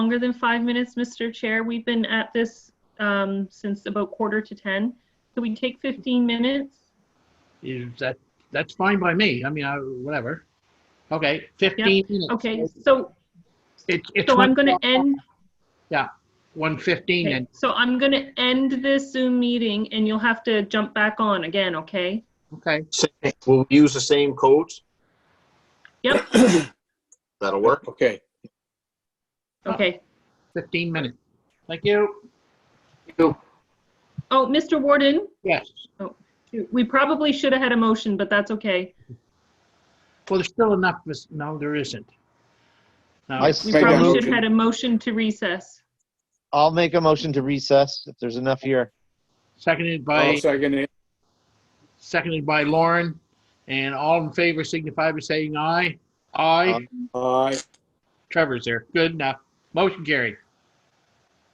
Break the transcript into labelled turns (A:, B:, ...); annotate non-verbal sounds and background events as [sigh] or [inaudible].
A: longer than five minutes, Mr. Chair. We've been at this um, since about quarter to 10. Could we take 15 minutes?
B: Is that, that's fine by me. I mean, I, whatever. Okay, 15 minutes.
A: Okay, so,
B: It's, it's
A: so I'm
B: one-
A: going to end,
B: 1:15 and,
A: so I'm going to end this Zoom meeting and you'll have to jump back on again, okay?
B: okay,
C: Same- We'll use the same codes?
A: Yep.
C: [coughs] That'll work.
D: Okay,
A: Okay.
B: 15 minutes. Thank you.
A: Oh, Mr. Warden,
B: Yes.
A: we probably should have had a motion, but that's okay.
B: Well, there's still enough, mis- no, there isn't. No,
E: I
A: We
E: second,
A: probably
D: motion.
A: should have had a motion to recess.
E: I'll make a motion to recess if there's enough here.
B: Seconded
D: I'll
B: by,
D: second it.
B: seconded by Lauren. And all in favor signify by saying aye. Aye.
E: Aye.
D: Aye.
B: Trevor's there. Good enough. Motion carried.